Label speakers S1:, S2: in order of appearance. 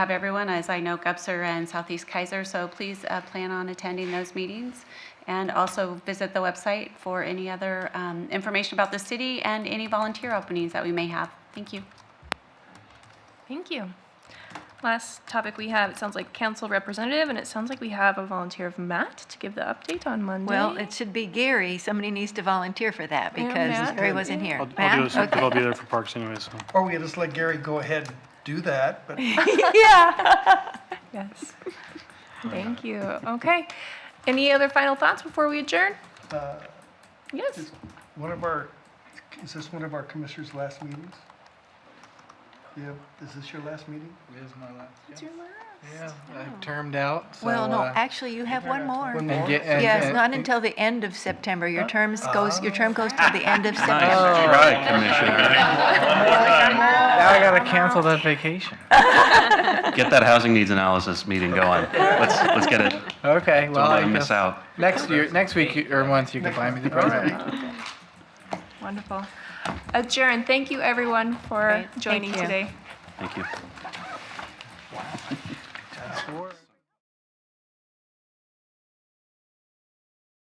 S1: have everyone, as I know Gupser and Southeast Kaiser, so please uh, plan on attending those meetings. And also visit the website for any other um, information about the city and any volunteer openings that we may have. Thank you.
S2: Thank you. Last topic we have, it sounds like council representative, and it sounds like we have a volunteer of Matt to give the update on Monday.
S3: Well, it should be Gary. Somebody needs to volunteer for that
S2: Yeah,
S3: because
S2: Matt.
S3: Gary wasn't here.
S4: I'll, I'll do
S3: Matt?
S4: this, because I'll be
S3: Okay.
S4: there for parks anyway, so.
S5: Or we could just let Gary go ahead and do that, but
S2: Yes. Thank you. Okay. Any other final thoughts before we adjourn?
S5: uh,
S2: Yes.
S5: one of our, is this one of our commissioners' last meetings? Yeah, is this your last meeting?
S6: It is my last. It's your last. Yeah, I've
S7: Oh.
S6: termed out, so.
S3: Well, no,
S6: uh,
S3: actually, you have one
S5: One
S3: more.
S5: more?
S6: and get- and-
S3: Yes,
S6: and-
S3: not
S6: and-
S3: until the end of September. Your terms goes, your term goes till the end of September.
S6: Oh,
S7: Right, Commissioner.
S6: Now I gotta cancel that vacation.
S7: Get that housing needs analysis meeting going. Let's, let's get it.
S6: Okay,
S7: Don't
S6: well,
S7: let
S6: I
S7: them miss
S6: guess,
S7: out.
S6: next year, next week you- or month, you can buy me the present.
S2: Wonderful. Adjourn. Thank you, everyone, for
S3: Great. Thank
S2: joining
S3: you.
S2: today.
S7: Thank you.